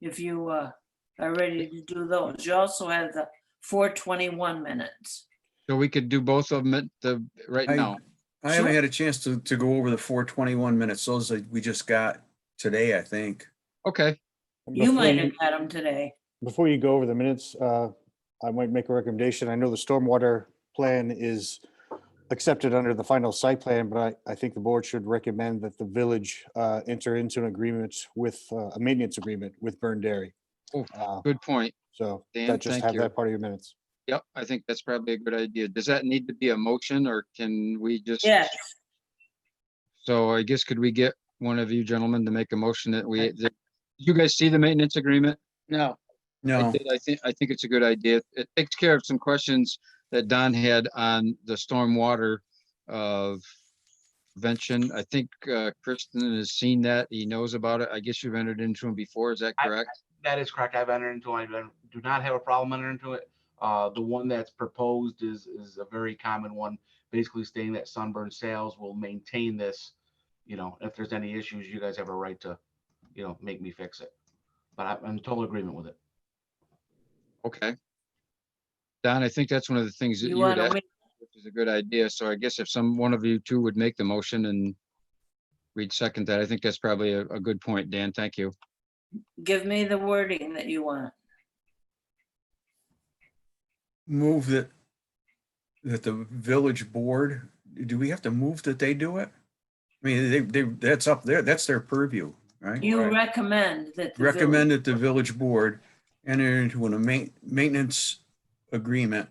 if you uh, are ready to do those. You also have the 421 minutes. So we could do both of them at the, right I- now. I haven't had a chance to, to go over the four twenty-one minutes. Those that we just got today, I think. Okay, You Before might have had them today. Before you go over the minutes, uh, I might make a recommendation. I know the stormwater plan is accepted under the final site plan, but I, I think the board should recommend that the village uh, enter into an agreement with, uh, a maintenance agreement with Burn Dairy. Oh, Uh, good point. So Dan, that just thank have you. that part of your minutes. Yep, I think that's probably a good idea. Does that need to be a motion or can we just? Yes, So I guess could we get one of you gentlemen to make a motion that we, that- you guys see the maintenance agreement? No. I No, did. I think, I think it's a good idea. It takes care of some questions that Don had on the stormwater of prevention. I think uh, Kristen has seen that. He knows about it. I guess you've entered into him before. Is that I- correct? That is correct. I've entered into, I do not have a problem entering into it. Uh, the one that's proposed is, is a very common one, basically stating that Sunburn Sales will maintain this. You know, if there's any issues, you guys have a right to, you know, make me fix it. But I'm- I'm in total agreement with it. Okay. Don, I think that's one of the things that you you would want to ask, wait. which is a good idea. So I guess if some, one of you two would make the motion and we'd second that. I think that's probably a, a good point, Dan. Thank you. Give me the wording that you want. move that, that the village board, do we have to move that they do it? I mean, they, they, that's up there. That's their purview, right? You Right. recommend that. the village- Recommend that the village board enter into an ma- maintenance agreement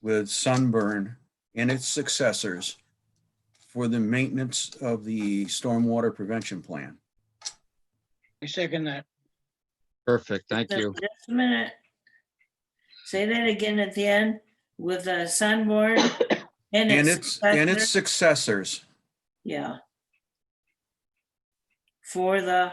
with Sunburn and its successors for the maintenance of the stormwater prevention plan. I second that. Perfect. Thank you. Just a minute. Say that again at the end with a sunboard and And its. its, and its successor. successors Yeah. For the,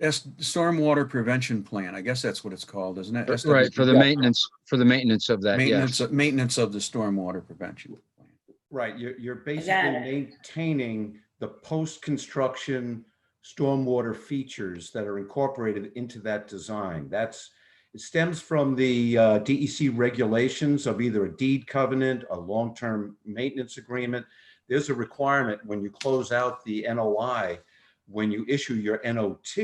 S- Stormwater Prevention Plan, I guess that's what it's called, isn't it? Right, for the SWP. maintenance, for the maintenance of that, yes. Maintenance, maintenance of the stormwater prevention. plan. Right, you're, you're basically it. maintaining the post-construction stormwater features that are incorporated into that design. That's, it stems from the uh, DEC regulations of either a deed covenant, a long-term maintenance agreement. There's a requirement when you close out the NOI, when you issue your NOT,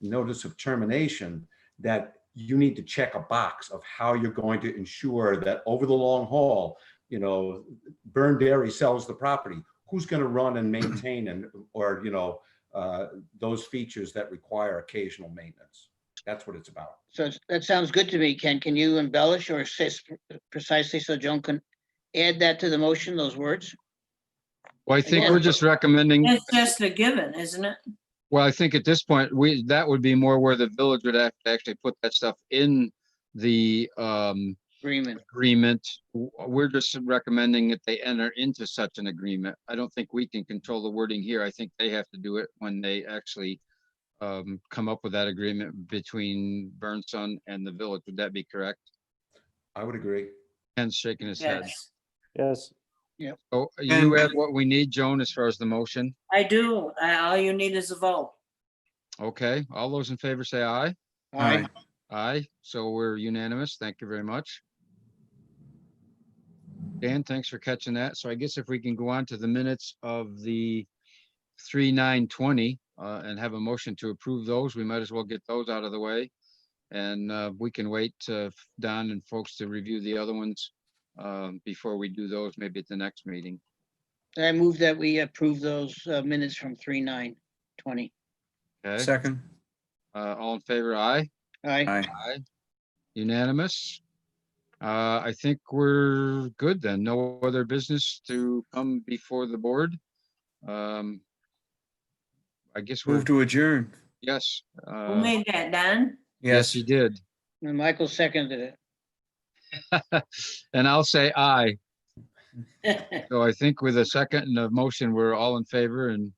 notice of termination, that you need to check a box of how you're going to ensure that over the long haul, you know, Burn Dairy sells the property, who's going to run and maintain and, or, you know, uh, those features that require occasional maintenance? That's what it's about. So it's- that sounds good to me, Ken. Can you embellish or assist precisely so Joan can add that to the motion, those words? Well, I think we're just recommending, it's just a given, isn't it? well, I think at this point, we, that would be more where the village would act- actually put that stuff in the, um, Agreement. agreement. W- We're just recommending that they enter into such an agreement. I don't think we can control the wording here. I think they have to do it when they actually um, come up with that agreement between Burnson and the village. Would that be correct? I would agree. Ken's shaking his head. Yes. Yes, Oh, you And- have what we need, Joan, as far as the motion? I do. I- All you need is a vote. Okay, all those in favor say aye. Aye. Aye, so we're unanimous. Thank you very much. Dan, thanks for catching that. So I guess if we can go on to the minutes of the three nine twenty uh, and have a motion to approve those, we might as well get those out of the way. And uh, we can wait uh, f- Don and folks to review the other ones um, before we do those, maybe at the next meeting. I move that we approve those uh, minutes from three nine twenty. Okay, Second, Uh, all in favor, aye? Aye. aye. Unanimous. Uh, I think we're good then. No other business to come before the board. Um, I guess we're, Move to adjourn. yes. Who uh, made that, Don? Yes, Yes, you did. And Michael seconded it. And I'll say aye. So I think with a second and a motion, we're all in favor and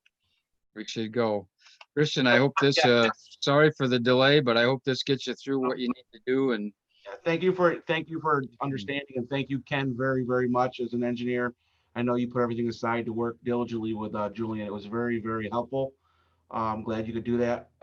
we should go. Christian, I hope this, uh, sorry for the delay, but I hope this gets you through what you need to do and Yeah, Thank you for, thank you for understanding and thank you, Ken, very, very much as an engineer. I know you put everything aside to work diligently with uh, Julian. It was very, very helpful. Uh, I'm glad you could do that.